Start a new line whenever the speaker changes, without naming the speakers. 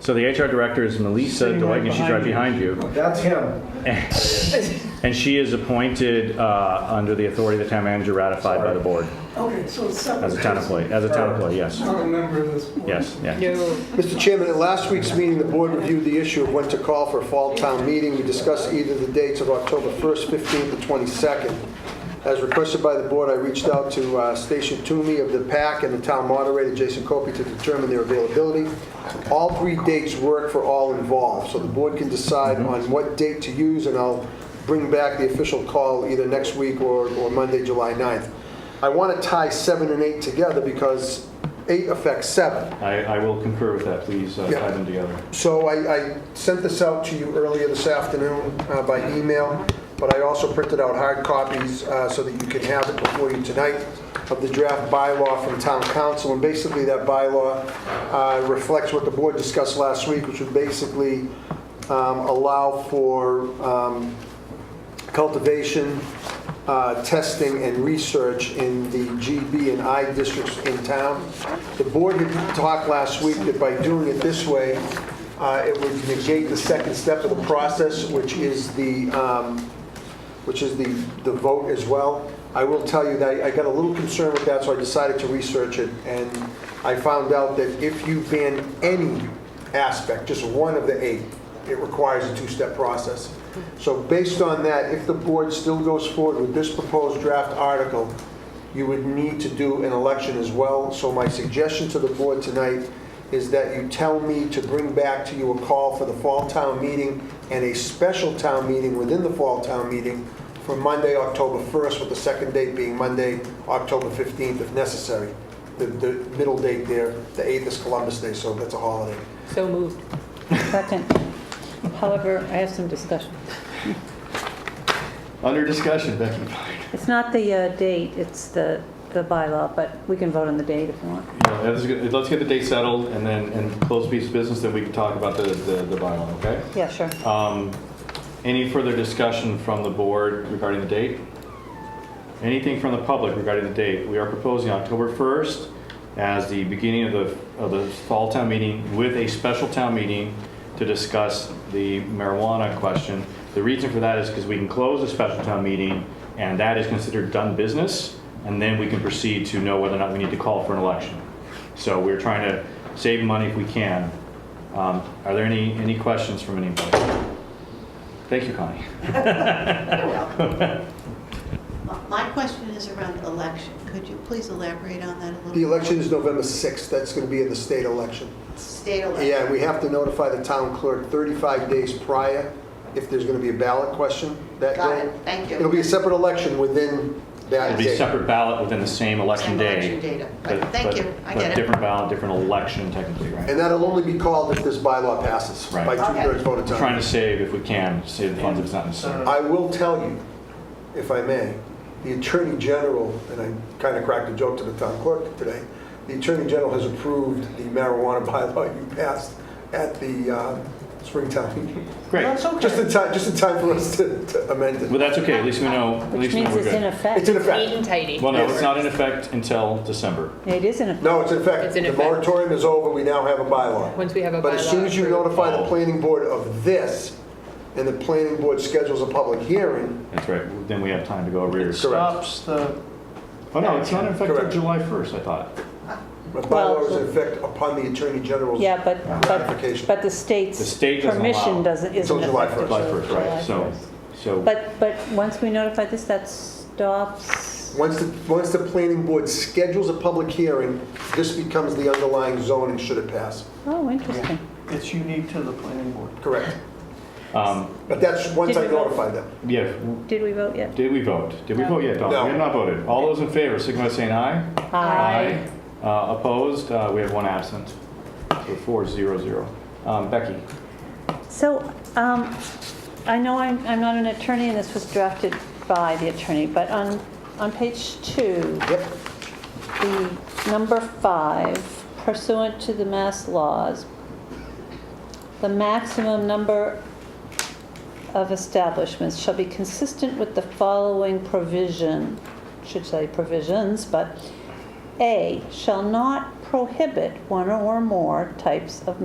So the HR director is Melissa
Sitting right
Dwight, and she's right behind you.
That's him.
And she is appointed uh, under the authority of the town manager ratified by the board
Okay, so it's separate.
as a town employee, as a town employee, yes.
Not a member of this board.
Yes, yeah.
No,
Mr. Chairman, at last week's meeting, the board reviewed the issue of when to call for a fall town meeting. We discussed either the dates of October 1st, 15th, or 22nd. As requested by the board, I reached out to uh, Station Toomey of the PAC and the town moderator, Jason Copey, to determine their availability. All three dates work for all involved, so the board can decide on what date to use, and I'll bring back the official call either next week or or Monday, July 9th. I want to tie 7 and 8 together because 8 affects 7.
I, I will concur with that, please uh,
Yeah.
tie them together.
So I, I sent this out to you earlier this afternoon uh, by email, but I also printed out hard copies uh, so that you can have it before you tonight of the draft bylaw from town council. And basically, that bylaw uh, reflects what the board discussed last week, which would basically um, allow for um, cultivation, uh, testing, and research in the GB and I districts in town. The board had talked last week that by doing it this way, uh, it would negate the second step of the process, which is the, um, which is the, the vote as well. I will tell you that I got a little concerned with that, so I decided to research it, and I found out that if you ban any aspect, just one of the eight, it requires a two-step process. So based on that, if the board still goes forward with this proposed draft article, you would need to do an election as well. So my suggestion to the board tonight is that you tell me to bring back to you a call for the fall town meeting and a special town meeting within the fall town meeting for Monday, October 1st, with the second date being Monday, October 15th, if necessary. The, the middle date there, the 8th is Columbus Day, so that's a holiday.
so moved.
Second. However, I have some discussion.
Under discussion, Becky Fine.
It's not the uh, date, it's the, the bylaw, but we can vote on the date if you want.
You know, let's get- Let's get the date settled and then, and close piece of business, then we can talk about the, the the bylaw, okay?
Yeah, sure.
Um, Any further discussion from the board regarding the date? Anything from the public regarding the date? We are proposing October 1st as the beginning of the, of the fall town meeting with a special town meeting to discuss the marijuana question. The reason for that is because we can close a special town meeting and that is considered done business. And then we can proceed to know whether or not we need to call for an election. So we're trying to save money if we can. Um, Are there any, any questions from anybody? Thank you, Connie.
My question is around election. Could you please elaborate on that a little?
The election is November 6th, that's going to be in the state election.
State election.
Yeah, we have to notify the town clerk 35 days prior if there's going to be a ballot question that day.
Got it. Thank you.
It'll be a separate election within that
It'll be
day.
a separate ballot within the same election
Same
day.
election data.
but-
Right, thank
but-
you. I
But
get it.
different ballot, different election technically, right?
And that'll only be called if this bylaw passes
Right.
by two-thirds vote of
We're Trying
time.
to save, if we can, save the funds if it's not necessary.
I will tell you, if I may, the Attorney General, and I kind of cracked a joke to the town clerk today, the Attorney General has approved the marijuana bylaw you passed at the uh, Springtown meeting.
Great.
That's okay.
Just in time, just in time for us to to amend it.
Well, that's okay, at least we know, at
Which
least we know
means
we're
it's in
good.
effect.
It's in effect.
Neat and tidy.
Well, no, it's not in effect until December.
It is in effect.
No, it's in effect.
It's in
The
effect.
moratorium is over, we now have a bylaw.
Once we have a
But as soon
bylaw
as you
approved.
notify the
Oh.
planning board of this, and the planning board schedules a public hearing,
That's right, then we have time to go over
Correct.
yours.
Stops the,
Oh, no, it's not in effect until
Correct.
July 1st, I thought.
the bylaw is in
Well-
effect upon the attorney general's.
Yeah, but, but,
Ratification.
but the
The
state's
state doesn't allow-
permission doesn't, isn't
Until July
effective
first.
July 1st,
July
right, so,
1st.
so,
But, but once we notify this, that stops,
Once the, once the planning board schedules a public hearing, this becomes the underlying zoning should it pass.
oh, interesting.
it's unique to the planning board.
Correct.
um,
But that's once
Did
I
we vote?
notify them.
yeah,
Did we vote yet?
did we vote? Did we
No.
vote yet, Don?
No.
We have not voted. All those in favor, signify by saying aye.
Aye.
Uh, Opposed, Uh, we have one absent. So four, zero, zero. Um, Becky,
So, um, I know I'm, I'm not an attorney, and this was drafted by the attorney, but on, on page two,
Yep.
the number five, pursuant to the mass laws, the maximum number of establishments shall be consistent with the following provision, should say provisions, but A, shall not prohibit one or more types of